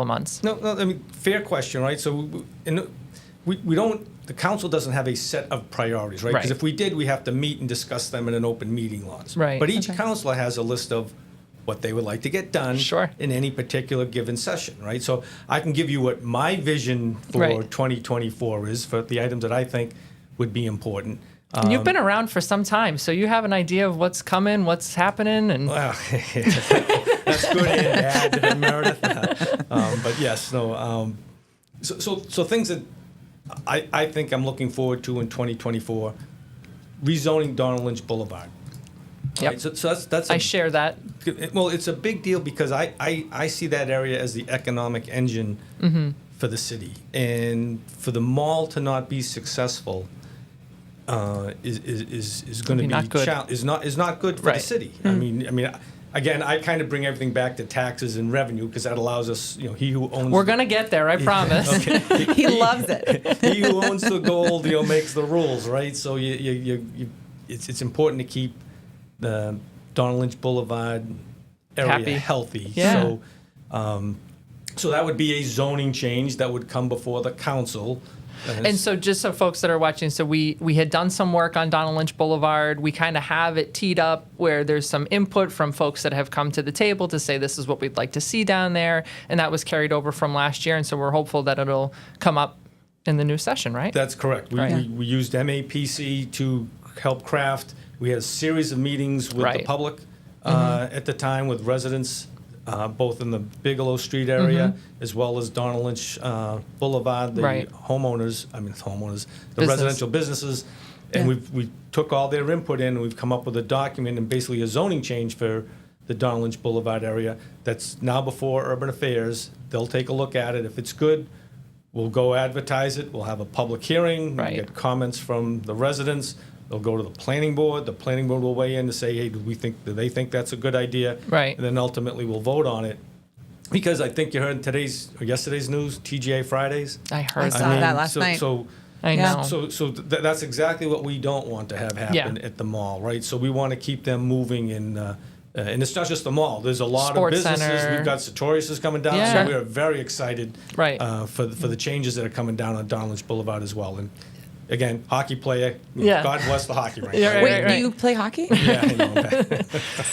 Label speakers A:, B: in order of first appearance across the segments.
A: of months.
B: No, no, I mean, fair question, right? So, we- and we, we don't, the council doesn't have a set of priorities, right? Because
A: Right.
B: if we did, we have to meet and discuss them in an open meeting laws.
A: Right,
B: But each
A: okay.
B: council has a list of what they would like to get done.
A: Sure.
B: In any particular given session, right? So I can give you what my vision for
A: Right.
B: 2024 is, for the items that I think would be important. Uh,
A: And you've been around for some time, so you have an idea of what's coming, what's happening, and
B: well, Oh. That's good and bad, that I Meredith. Um, But yes, no, um, so, so, so things that I, I think I'm looking forward to in 2024, rezoning Donald Lynch Boulevard.
A: Yep.
B: Right, So, so that's, that's.
A: I
B: a-
A: share that.
B: Well, it's a big deal because I, I, I see that area as the economic engine
A: Mm-hmm.
B: for the city. And for the mall to not be successful uh, is, is, is, is going to
A: Be
B: be,
A: not good.
B: chal- is not is not good for the
A: Right. Mm-hmm.
B: city. I mean, I mean, again, I kind of bring everything back to taxes and revenue because that allows us, you know, he who owns
A: We're gonna get there, I promise.
B: Okay.
C: He loves it.
B: he who owns the gold, you know, makes the rules, right? So you, you, you, you it's, it's important to keep the Donald Lynch Boulevard area
A: Happy.
B: healthy.
A: Yeah.
B: So, um, so that would be a zoning change that would come before the council.
A: And so, just so folks that are watching, so we we had done some work on Donald Lynch Boulevard. We kind of have it teed up where there's some input from folks that have come to the table to say this is what we'd like to see down there, and that was carried over from last year. And so, we're hopeful that it'll come up in the new session, right?
B: That's correct. We,
A: Right.
B: we, we used MAPC to help craft. We had a series of meetings with the
A: Right. Mm-hmm.
B: public uh, at the time with residents, uh, both in the Bigelow Street
A: Mm-hmm.
B: area as well as Donald Lynch uh, Boulevard, the
A: Right.
B: homeowners, I mean, homeowners, the
A: Business.
B: residential businesses. And
C: Yeah.
B: we've, we took all their input in and we've come up with a document and basically a zoning change for the Donald Lynch Boulevard area that's now before Urban Affairs. They'll take a look at it. If it's good, We'll go advertise it, we'll have a public hearing, we'll
A: Right.
B: get comments from the residents, they'll go to the planning board, the planning board will weigh in to say, hey, do we think, do they think that's a good idea?
A: Right.
B: And then ultimately, we'll vote on it. Because I think you heard in today's, or yesterday's news, TGA Fridays.
A: I heard
C: I
A: that.
C: saw that last
B: so-
C: night.
B: So,
A: I
C: Yeah.
A: know.
B: so, so th- that's exactly what we don't want to have happen
A: Um, Yeah.
B: at the mall, right? So we want to keep them moving and, uh, uh, and it's not just the mall, there's a lot
A: Sports
B: of businesses.
A: center.
B: We've got Sartorius is coming down,
A: Yeah.
B: so we are very excited
A: Right.
B: uh, for, the- for the changes that are coming down on Donald Lynch Boulevard as well. And again, hockey player,
A: Yeah.
B: God bless the hockey rink.
A: Yeah,
B: right?
A: right,
C: Wait,
A: right,
C: do you play hockey?
B: Yeah, I know.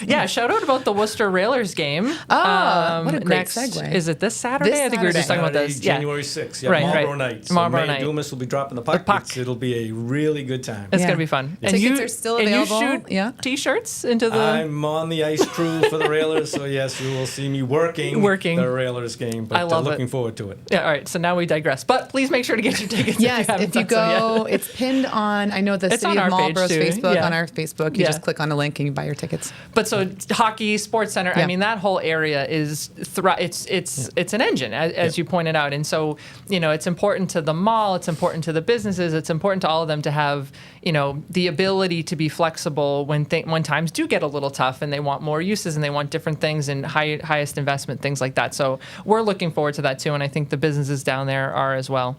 A: yeah, shout out about the Worcester Railers game. Um,
C: Oh, what a great
A: next,
C: segue.
A: Is it this Saturday? I think we were just talking
C: Saturday.
A: about this. Yeah.
B: January 6th, yeah,
A: Right, right.
B: Marlboro night. So
A: Marlboro
B: Mayor
A: night.
B: Dumas will be dropping the puck.
A: puck.
B: It's- It'll be a really good time.
A: It's
C: Yeah.
A: gonna be fun.
C: Tickets are still available,
A: And you shoot
C: yeah.
A: t-shirts into the.
B: I'm on the ice crew for the Railers, so yes, you will see me working,
A: Working.
B: the Railers game. But
A: I
B: uh,
A: love it.
B: looking forward to it.
A: Yeah, all right. So now we digress. But please make sure to get your tickets.
C: Yes,
A: haven't
C: if you
A: done so yet.
C: go, it's pinned on. I know the
A: It's on
C: city
A: our
C: of
A: page
C: Marlboro's
A: too,
C: Facebook.
A: yeah.
C: On our Facebook, you
A: Yeah.
C: just click on the link and you buy your tickets.
A: But so it's hockey, sports center. I
C: Yeah.
A: mean, that whole area is thri- it's it's it's an engine, as, as you pointed out. And so you know, it's important to the mall. It's important to the businesses. It's important to all of them to have you know the ability to be flexible when th- when times do get a little tough and they want more uses and they want different things and high, highest investment things like that. So we're looking forward to that too, and I think the businesses down there are as well.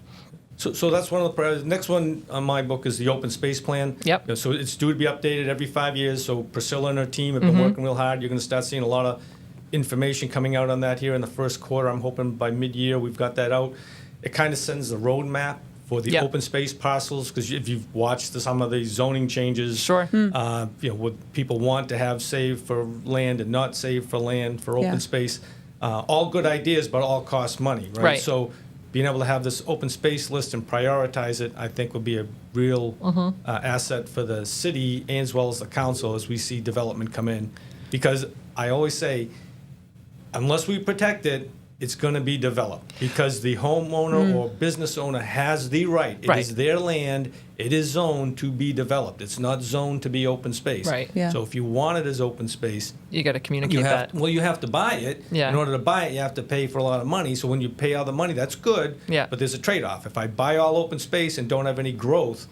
B: So, so that's one of the priorities. Next one on my book is the open space plan.
A: Yep.
B: You know, So it's due to be updated every five years. So Priscilla and her team have been
A: Mm-hmm.
B: working real hard. You're going to start seeing a lot of information coming out on that here in the first quarter. I'm hoping by mid-year we've got that out. It kind of sends the roadmap for the
A: Yep.
B: open space parcels because if you've watched the, some of the zoning changes,
A: Sure. Hmm.
B: uh, you know what people want to have saved for land and not saved for land for open
C: Yeah.
B: space. Uh, all good ideas, but all cost money, right?
A: Right.
B: So being able to have this open space list and prioritize it, I think, will be a real
A: Mm-hmm.
B: uh, asset for the city as well as the council as we see development come in. Because I always say, unless we protect it, it's going to be developed because the homeowner or business owner has the right. It
A: Mm.
B: is
A: Right.
B: their land. It is zoned to be developed. It's not zoned to be open space.
A: Right.
C: Yeah.
B: So if you want it as open space,
A: You got to communicate
B: you
A: that.
B: have well, you have to buy it.
A: Yeah.
B: In order to buy it, you have to pay for a lot of money. So when you pay all the money, that's good.
A: Yeah.
B: But there's a trade-off. If I buy all open space and don't have any growth,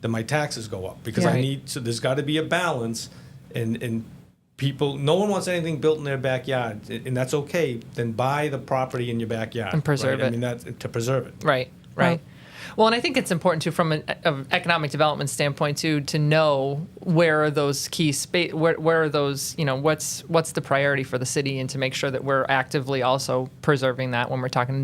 B: then my taxes go up because I
A: Right.
B: need. So there's got to be a balance, and and people, no one wants anything built in their backyard, a- and that's okay. Then buy the property in your backyard
A: And preserve
B: right? I
A: it.
B: mean that to preserve it.
A: Right, right.
C: Right.
A: Well, and I think it's important too, from an e- of economic development standpoint too, to know where are those key space, where, where are those, you know, what's what's the priority for the city, and to make sure that we're actively also preserving that when we're talking